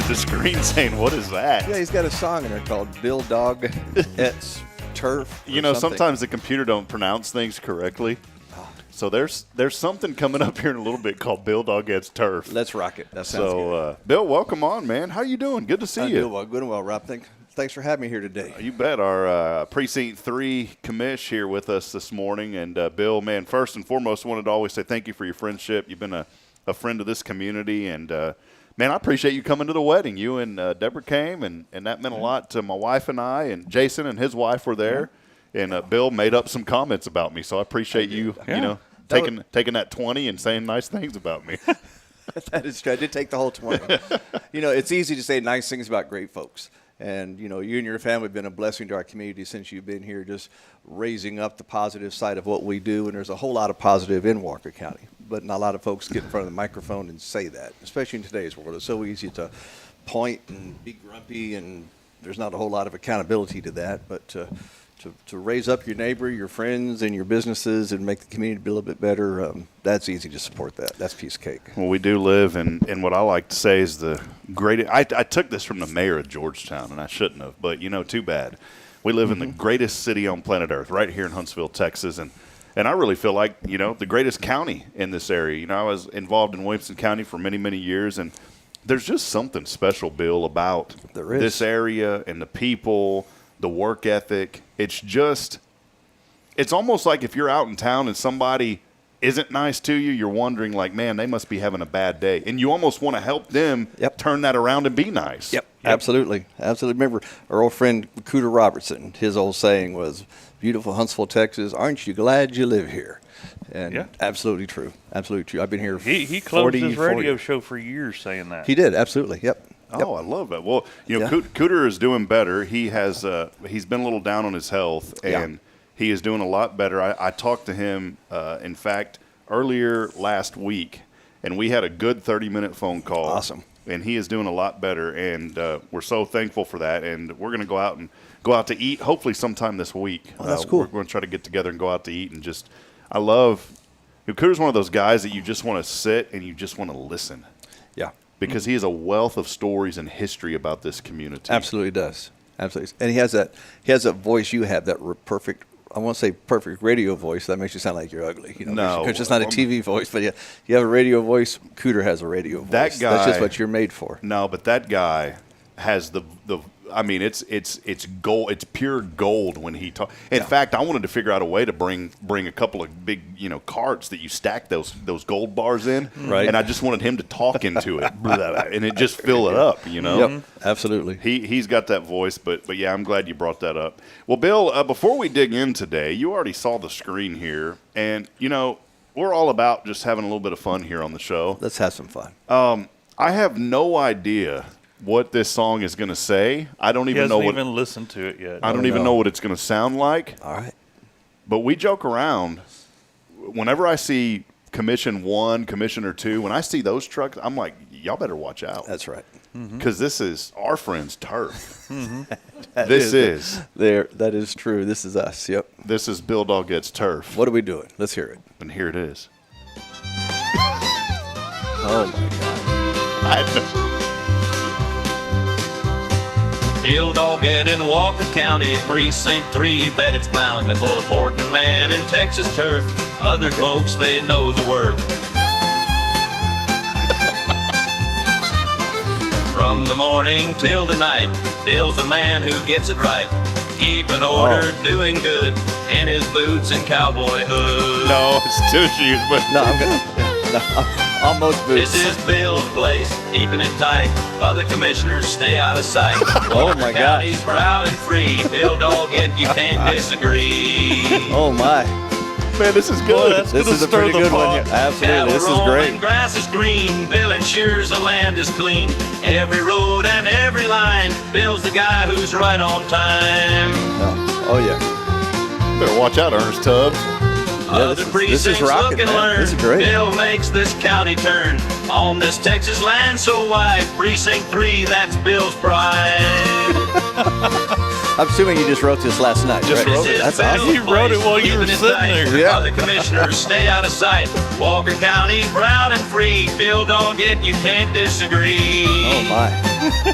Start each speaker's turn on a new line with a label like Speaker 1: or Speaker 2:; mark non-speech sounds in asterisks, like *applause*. Speaker 1: *laughs* the screen saying, "What is that?"
Speaker 2: Yeah, he's got a song in there called "Bill Dog Ets Turf." or
Speaker 1: you know,
Speaker 2: something. Ah.
Speaker 1: sometimes the computer don't pronounce things correctly. So there's there's something coming up here in a little bit called Bill Dog Gets Turf.
Speaker 2: Let's rock it. That sounds
Speaker 1: so
Speaker 2: good.
Speaker 1: uh, Bill, welcome on, man. How you doing? Good to see
Speaker 2: I
Speaker 1: you.
Speaker 2: do well, good and well, Rob. Thank, thanks for having me here today.
Speaker 1: You bet. Our uh, precinct three commish here with us this morning, and uh, Bill, man, first and foremost, wanted to always say thank you for your friendship. You've been a, a friend of this community, and uh, man, I appreciate you coming to the wedding. You and uh, Deborah came, and and that meant a lot to my wife and I, and Jason and his wife were there, and uh, Bill made up some comments about me, so I appreciate you.
Speaker 3: Yeah.
Speaker 1: You know.
Speaker 2: That
Speaker 1: Taking, taking that 20 and saying nice things about me.
Speaker 2: that is true. I did take the whole 20. you know, it's easy to say nice things about great folks. And, you know, you and your family have been a blessing to our community since you've been here, just raising up the positive side of what we do. And there's a whole lot of positive in Walker County, but not a lot of folks get in front of the microphone and say that, especially in today's world. It's so easy to point and be grumpy, and there's not a whole lot of accountability to that. But, uh, to, to raise up your neighbor, your friends, and your businesses and make the community a little bit better, um, that's easy to support that. That's piece of cake.
Speaker 1: Well, we do live in, in what I like to say is the greatest. I, I took this from the mayor of Georgetown, and I shouldn't have, but you know, too bad. We live
Speaker 2: Mm-hmm.
Speaker 1: in the greatest city on planet Earth, right here in Huntsville, Texas, and and I really feel like you know the greatest county in this area. You know, I was involved in Williamson County for many many years, and there's just something special, Bill, about
Speaker 2: There is.
Speaker 1: this area and the people, the work ethic. It's just it's almost like if you're out in town and somebody isn't nice to you, you're wondering like, man, they must be having a bad day, and you almost want to help them
Speaker 2: Yep.
Speaker 1: turn that around and be nice.
Speaker 2: Absolutely. Absolutely. Remember, our old friend Cooter Robertson, his old saying was, Beautiful Huntsville, Texas, aren't you glad you live here? And
Speaker 3: Yeah.
Speaker 2: absolutely true. Absolutely true. I've been here
Speaker 3: He he closed
Speaker 2: 40,
Speaker 3: his radio
Speaker 2: 40
Speaker 3: show for years saying that.
Speaker 2: He did. Absolutely. Yep.
Speaker 1: Oh,
Speaker 2: Yep.
Speaker 1: I love that. Well, you know,
Speaker 2: Yeah.
Speaker 1: Coot Cooter is doing better. He has uh, he's been a little down on his health,
Speaker 2: Yeah.
Speaker 1: and he is doing a lot better. I, I talked to him, uh, in fact, earlier last week, and we had a good thirty minute phone call.
Speaker 2: Awesome.
Speaker 1: And he is doing a lot better, and uh, we're so thankful for that. And we're going to go out and go out to eat, hopefully sometime this week.
Speaker 2: Oh, that's
Speaker 1: Uh,
Speaker 2: cool.
Speaker 1: We're going to try to get together and go out to eat and just. I love. you know, Cooter's one of those guys that you just want to sit and you just want to listen
Speaker 2: Yeah.
Speaker 1: because he has a wealth of stories and history about this community.
Speaker 2: Absolutely does. Absolutely. And he has that he has that voice you have, that re- perfect I won't say perfect radio voice. That makes you sound like you're ugly. You know,
Speaker 1: No.
Speaker 2: because it's not a
Speaker 3: Oh,
Speaker 2: TV voice, but yeah, you have a radio voice. Cooter has a radio voice.
Speaker 1: That
Speaker 2: That's
Speaker 1: guy-
Speaker 2: just what you're made for.
Speaker 1: No, but that guy has the the. I mean, it's it's it's gold. It's pure gold when he talks. In
Speaker 2: Yeah.
Speaker 1: fact, I wanted to figure out a way to bring bring a couple of big you know carts that you stack those those gold bars in,
Speaker 2: Right.
Speaker 1: And I just wanted him to talk into
Speaker 2: *laughs*
Speaker 1: it, blah, blah, blah, and it just fill it up, you know.
Speaker 2: Yep. Absolutely.
Speaker 1: He he's got that voice, but but yeah, I'm glad you brought that up. Well, Bill, uh, before we dig in today, you already saw the screen here, and you know we're all about just having a little bit of fun here on the show.
Speaker 2: Let's have some fun.
Speaker 1: I have no idea what this song is going to say. I don't
Speaker 3: He
Speaker 1: even know
Speaker 3: hasn't
Speaker 1: what
Speaker 3: even listened to it yet.
Speaker 1: I don't
Speaker 2: I
Speaker 1: even
Speaker 2: know.
Speaker 1: know what it's going to sound like.
Speaker 2: All right.
Speaker 1: But we joke around. Whenever I see Commission One, Commissioner Two, when I see those trucks, I'm like, y'all better watch out
Speaker 2: That's right.
Speaker 3: Mm-hmm.
Speaker 1: because this is our friend's turf. this is.
Speaker 2: There, that is true. This is us. Yep.
Speaker 1: This is Bill Doggett's turf.
Speaker 2: What are we doing? Let's hear it.
Speaker 1: And here it is. *laughs*
Speaker 2: Oh my God.
Speaker 4: Bill Doggett in Walker County, Precinct 3, bet it's bound to pull a Portland man in Texas turf. Other folks, they know the word. From the morning till the night, Bill's the man who gets it right. Keeping order, doing good, in his boots and cowboy hood.
Speaker 1: No, it's two shoes, but
Speaker 2: No, I'm gonna. No, I'm almost
Speaker 4: This
Speaker 2: boots.
Speaker 4: is Bill's place, keeping it tight. Other commissioners stay out
Speaker 2: *laughs*
Speaker 4: of sight. oh
Speaker 2: my God.
Speaker 4: County's proud and free. Bill Doggett, you
Speaker 2: *laughs*
Speaker 4: can't disagree.
Speaker 2: Oh my.
Speaker 1: man, this is
Speaker 3: Boy,
Speaker 1: good.
Speaker 3: that's- It's
Speaker 2: This
Speaker 3: gonna
Speaker 2: is a
Speaker 3: stir
Speaker 2: pretty
Speaker 3: the
Speaker 2: good
Speaker 3: pot.
Speaker 2: one. here. Absolutely. This is
Speaker 4: Cattle roam and
Speaker 2: great.
Speaker 4: grass is green. Bill ensures the land is clean. Every road and every line. Bill's the guy who's right on time.
Speaker 2: No. Oh yeah.
Speaker 1: Better watch out, Ernest Tubbs.
Speaker 2: Yeah,
Speaker 4: Other
Speaker 2: this, is,
Speaker 4: precincts
Speaker 2: this is rocking.
Speaker 4: look and
Speaker 2: Man.
Speaker 4: learn.
Speaker 2: This is great.
Speaker 4: Bill makes this county turn on this Texas land so wide. Precinct three, that's Bill's pride.
Speaker 2: I'm assuming you just wrote this last night.
Speaker 1: Just
Speaker 2: right?
Speaker 1: wrote it.
Speaker 2: That's
Speaker 4: Bill's
Speaker 2: awesome.
Speaker 3: He wrote it
Speaker 4: place,
Speaker 3: while you
Speaker 4: keeping
Speaker 3: were
Speaker 4: it
Speaker 3: sitting
Speaker 4: tight
Speaker 3: there.
Speaker 2: Yeah.
Speaker 4: While the commissioners stay out of sight. Walker County, proud and free. Bill, don't get you can't disagree.
Speaker 2: Oh my.